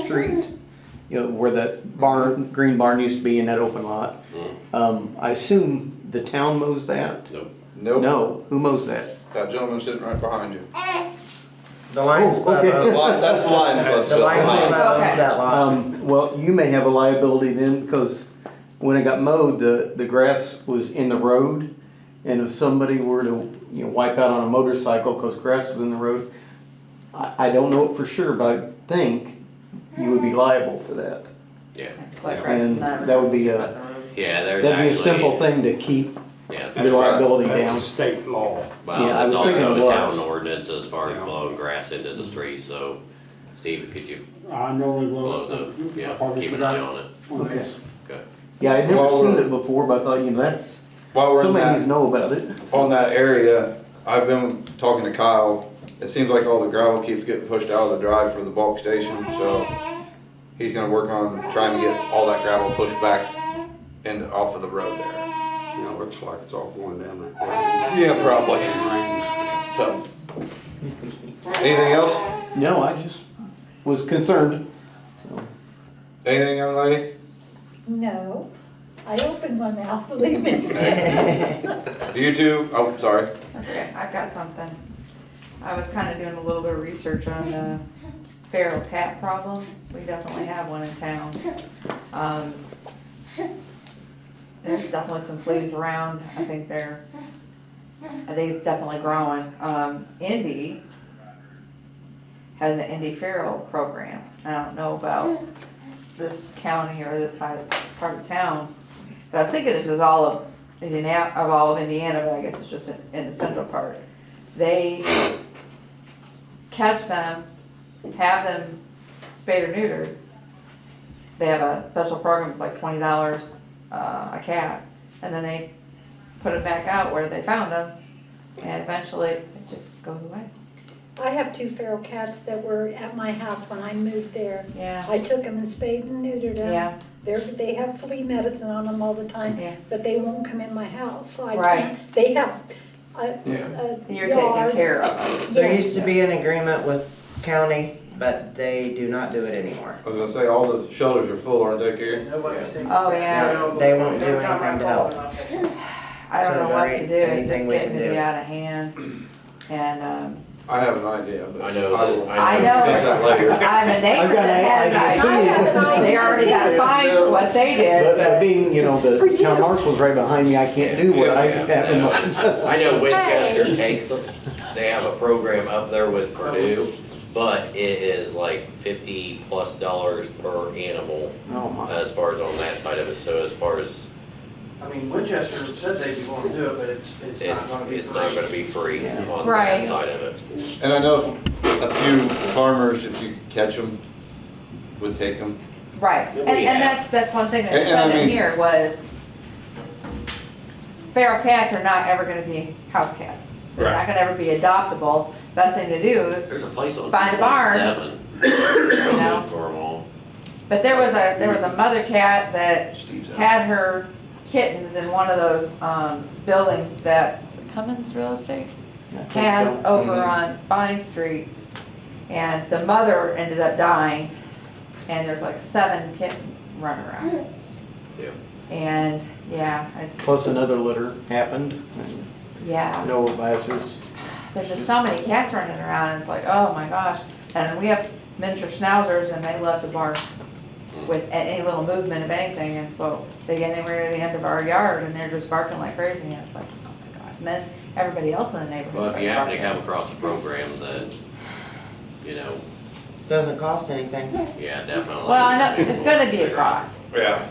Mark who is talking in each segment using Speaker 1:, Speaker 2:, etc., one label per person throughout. Speaker 1: street, you know, where that barn, green barn used to be in that open lot.
Speaker 2: Hmm.
Speaker 1: Um, I assume the town mows that?
Speaker 3: Nope.
Speaker 4: Nope,
Speaker 1: No, who mows that?
Speaker 4: that gentleman sitting right behind you.
Speaker 5: The Lions
Speaker 1: Oh,
Speaker 5: Club,
Speaker 1: okay.
Speaker 5: owns-
Speaker 4: The Lion- That's the Lions Club.
Speaker 5: the Lions Club
Speaker 6: Okay.
Speaker 5: owns that lot.
Speaker 1: Um, well, you may have a liability then, because when it got mowed, the, the grass was in the road. And if somebody were to, you know, wipe out on a motorcycle because grass was in the road, I, I don't know it for sure, but I think you would be liable for that.
Speaker 3: Yeah.
Speaker 6: Like
Speaker 3: Yeah,
Speaker 6: right
Speaker 1: And
Speaker 6: now.
Speaker 1: that would be a,
Speaker 3: Yeah, there's
Speaker 1: that'd be a
Speaker 3: actually-
Speaker 1: simple thing to keep
Speaker 3: Yeah.
Speaker 1: your liability
Speaker 2: That's a
Speaker 1: down.
Speaker 2: state law.
Speaker 3: Well,
Speaker 1: Yeah, I
Speaker 3: it's
Speaker 1: was thinking
Speaker 3: also
Speaker 1: it
Speaker 3: a town
Speaker 1: was.
Speaker 3: ordinance as far as
Speaker 2: Yeah.
Speaker 3: blowing grass into the street, so Steve, could you
Speaker 2: I normally
Speaker 3: blow
Speaker 2: will.
Speaker 3: the,
Speaker 2: I
Speaker 3: yeah,
Speaker 2: probably
Speaker 3: keep an
Speaker 2: forgot
Speaker 3: eye on it?
Speaker 2: on this.
Speaker 3: Okay.
Speaker 1: Yeah, I'd never
Speaker 4: Well,
Speaker 1: seen
Speaker 4: we're-
Speaker 1: it before, but I thought, you know, that's,
Speaker 4: While we're in
Speaker 1: somebody needs to
Speaker 4: that,
Speaker 1: know about it.
Speaker 4: on that area, I've been talking to Kyle. It seems like all the gravel keeps getting pushed out of the drive for the bulk station, so he's gonna work on trying to get all that gravel pushed back and off of the road there.
Speaker 2: You know, looks like it's all going down that way.
Speaker 4: Yeah, probably.
Speaker 2: Rains.
Speaker 4: So, anything else?
Speaker 1: No, I just was concerned.
Speaker 4: Anything, young lady?
Speaker 7: No, I opened my mouth, believe me.
Speaker 4: Do you two? Oh, sorry.
Speaker 6: That's okay, I've got something. I was kinda doing a little bit of research on the feral cat problem. We definitely have one in town. Um, There's definitely some fleas around, I think they're, they're definitely growing. Um, Indy has an Indy feral program. I don't know about this county or this side, part of town. But I was thinking it was all of Indiana, of all of Indiana, but I guess it's just in, in the central part. They catch them, have them spayed or neutered. They have a special program, it's like twenty dollars, uh, a cat, and then they put it back out where they found them, and eventually it just goes away.
Speaker 7: I have two feral cats that were at my house when I moved there.
Speaker 6: Yeah,
Speaker 7: I took them and spayed and neutered them.
Speaker 6: yeah,
Speaker 7: They're, they have flea medicine on them all the time,
Speaker 6: yeah.
Speaker 7: but they won't come in my house, so I
Speaker 6: Right.
Speaker 7: can't. They have a,
Speaker 3: Yeah.
Speaker 7: a
Speaker 6: You're taking
Speaker 7: yard.
Speaker 6: care of them.
Speaker 5: There
Speaker 7: Yes,
Speaker 5: used to be an agreement with county, but they do not do it anymore.
Speaker 4: I was gonna say all the shelters are full, aren't they, Gary?
Speaker 6: Oh, yeah,
Speaker 5: They won't do anything to help.
Speaker 6: I don't
Speaker 5: So
Speaker 6: know
Speaker 5: there
Speaker 6: what to
Speaker 5: ain't
Speaker 6: do, it's just
Speaker 5: anything we
Speaker 6: getting
Speaker 5: can
Speaker 6: to be
Speaker 5: do.
Speaker 6: out of hand, and, um,
Speaker 4: I have an idea, but
Speaker 3: I know
Speaker 4: will-
Speaker 3: that,
Speaker 6: I
Speaker 3: I
Speaker 6: know.
Speaker 3: know.
Speaker 4: Fix that later.
Speaker 6: I'm a neighbor that had
Speaker 1: I've
Speaker 6: an
Speaker 1: got
Speaker 7: an idea,
Speaker 6: idea.
Speaker 7: too.
Speaker 6: They already got fined for what they
Speaker 1: But, uh, but
Speaker 6: did,
Speaker 1: being, you know,
Speaker 7: For
Speaker 1: the
Speaker 7: you.
Speaker 1: town marshal's right behind me, I can't do what I
Speaker 4: Yeah,
Speaker 1: have in mind.
Speaker 3: I know Winchester
Speaker 7: Hey.
Speaker 3: takes them, they have a program up there with Purdue, but it is like fifty plus dollars per animal
Speaker 1: Oh my.
Speaker 3: as far as on that side of it, so as far as,
Speaker 8: I mean, Winchester said they'd be willing to do it, but it's, it's not
Speaker 3: it's,
Speaker 8: gonna be.
Speaker 3: it's not gonna be free
Speaker 1: Yeah.
Speaker 3: on
Speaker 6: Right.
Speaker 3: that side of it.
Speaker 4: And I know a few farmers, if you catch them, would take them.
Speaker 6: but, right, and,
Speaker 3: We have.
Speaker 6: and that's, that's one thing that
Speaker 4: And- and I
Speaker 6: said in
Speaker 4: mean-
Speaker 6: here was feral cats are not ever gonna be house cats. They're not
Speaker 3: Right.
Speaker 6: gonna ever be adoptable, best thing to do is,
Speaker 3: There's a place on
Speaker 6: By the barn.
Speaker 3: twenty-seven.
Speaker 6: you know,
Speaker 3: For them all.
Speaker 6: but there was a, there was a mother cat that
Speaker 4: Steve's out.
Speaker 6: had her kittens in one of those um, buildings that Cummins Real Estate has over
Speaker 1: mm-hmm.
Speaker 4: Mhm.
Speaker 6: on Vine Street. And the mother ended up dying, and there's like seven kittens running around.
Speaker 3: Yeah.
Speaker 6: And, yeah, it's,
Speaker 1: Plus another litter happened,
Speaker 6: yeah,
Speaker 1: no advisors.
Speaker 6: there's just so many cats running around, and it's like, oh my gosh. And we have miniature schnauzers, and they love to bark with at any little movement of anything, and so they get anywhere near the end of our yard, and they're just barking like crazy, and it's like, oh my god. And then everybody else in the neighborhood
Speaker 3: Well,
Speaker 6: starts
Speaker 3: if you happen to come
Speaker 6: barking.
Speaker 3: across a program that, you know,
Speaker 5: Doesn't cost anything.
Speaker 3: yeah, definitely.
Speaker 6: Well, I know, it's gonna be a cost.
Speaker 4: Yeah.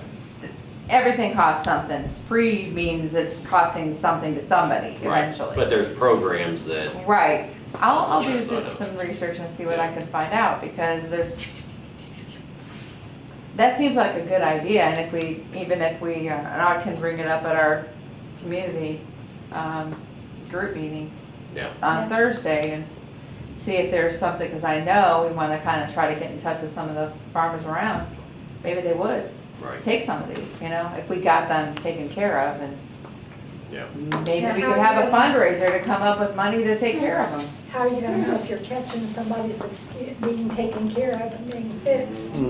Speaker 6: Everything costs something. Free means it's costing something to somebody
Speaker 3: Right, but
Speaker 6: eventually.
Speaker 3: there's programs that,
Speaker 6: Right. I'll, I'll do some, some research and see what I can find out, because there's, that seems like a good idea, and if we, even if we, uh, and I can bring it up at our community, um, group meeting
Speaker 3: yeah,
Speaker 6: on
Speaker 7: Yeah.
Speaker 6: Thursday and see if there's something, because I know we wanna kinda try to get in touch with some of the farmers around. Maybe they would
Speaker 3: right,
Speaker 6: take some of these, you know, if we got them taken care of and
Speaker 3: yeah.
Speaker 6: maybe
Speaker 7: Yeah,
Speaker 6: we
Speaker 7: how
Speaker 6: could have a
Speaker 7: do you-
Speaker 6: fundraiser to come up with money to take care of them.
Speaker 7: How are you gonna know if you're catching somebody's being taken care of and being fixed?